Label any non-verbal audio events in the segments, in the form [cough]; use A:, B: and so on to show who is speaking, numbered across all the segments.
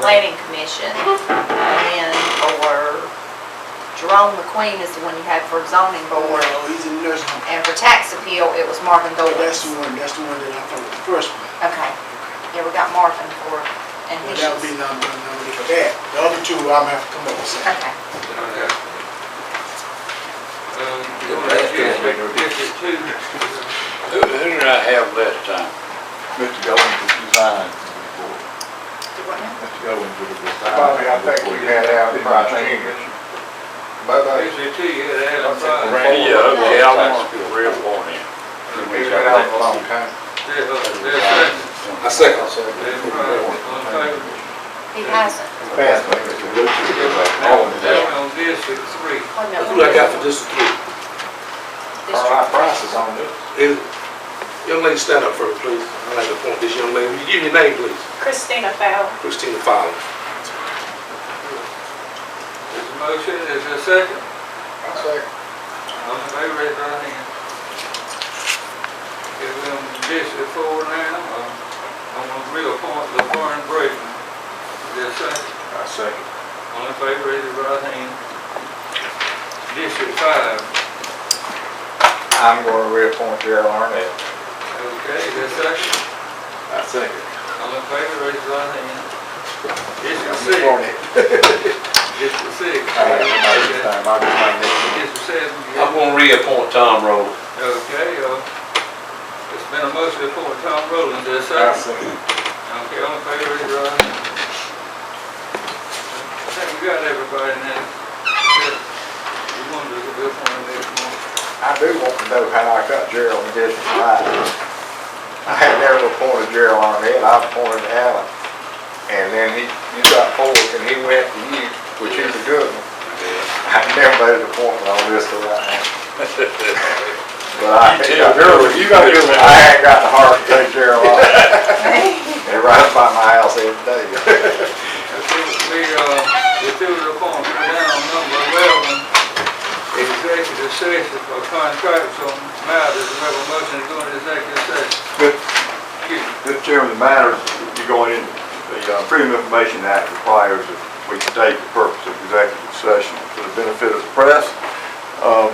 A: planning commission. And then for Jerome McQueen is the one you had for zoning board.
B: Oh, he's in nursing home.
A: And for tax appeal, it was Marvin
B: Oh, that's
A: Doyle.
B: the one, that's the one that I thought was the first one.
A: Okay, yeah, we got Marvin for, and
B: Well,
A: he's,
B: that would be number, number for that. The other two, I'm gonna have to come up with something.
A: okay.
C: Who, who did I have last time?
D: Mr. Goins was resigned from the board. Mr. Goins was resigned.
E: Bobby, I think you had out in my fingers. Bye-bye.
C: Randy, yeah, okay, I want to reappoint him.
E: He's been out for a long time.
C: I second.
A: He hasn't.
E: Fast, like Mr. Lucas.
C: Oh, yeah.
A: Oh, no.
F: That's what I got for District Three.
E: All
A: District
E: right, prices on this.
F: And, Young lady, stand up first, please. I'd like to appoint this young lady. Will you Give me your name, please.
G: Christina Fowler.
F: Christina Fowler.
H: There's a motion, is there a second?
E: I'll say.
H: All in favor, raise your right hand. Give them District Four now, uh, I'm gonna reappoint LaFarge Brayton. Is there a second?
E: I'll say.
H: All in favor, raise your right hand. District Five,
E: I'm gonna reappoint Gerald Arnett.
H: okay, is there a second?
E: I second.
H: All in favor, raise your right hand. District
E: I'm
H: Six,
E: Arnett.
H: District Six.
E: I have my next
H: Okay.
E: time, I'll get my next one.
H: District Seven,
C: I'm gonna reappoint Tom Rowland.
H: okay, uh, it's been a motion to appoint Tom Rowland, is there a second?
E: I'll second.
H: Okay, all in favor, raise your right hand. I think we got everybody now. We want to do a good one next month.
E: I do want to know how I got Gerald in District Five. I had never appointed Gerald Arnett, I appointed Allen. And then he, you got pulled and he went to you, which is a good one. I never made an appointment on this [laughs] till right now. But I,
C: You tell
E: Gerald, you got
C: Gerald.
E: I ain't got the heart to take Gerald Arnett. [laughs]
A: [laughs]
E: And right by my house every day.
H: That's what we, uh, we do the appointment down number eleven, executive session for contractual matters. We have a motion to go into executive session.
D: Good.
H: Excuse me.
D: Mr. Chairman, the matters you're going in, the uh, Freedom of Information Act requires that we state the purpose of executive session for the benefit of the press. Um,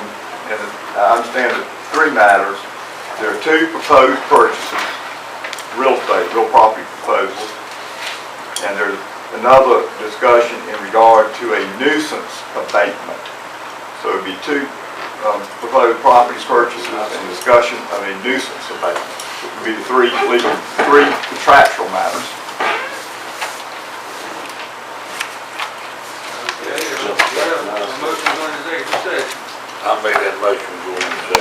D: And I understand that three matters. There are two proposed purchases, real estate, real property proposals. And there's another discussion in regard to a nuisance abatement. So it'd be two um, proposed properties purchases and discussion of a nuisance abatement. It would be the three legal, three contractual matters.
H: Okay, uh, we have a motion to go into executive session.
C: I made that motion going into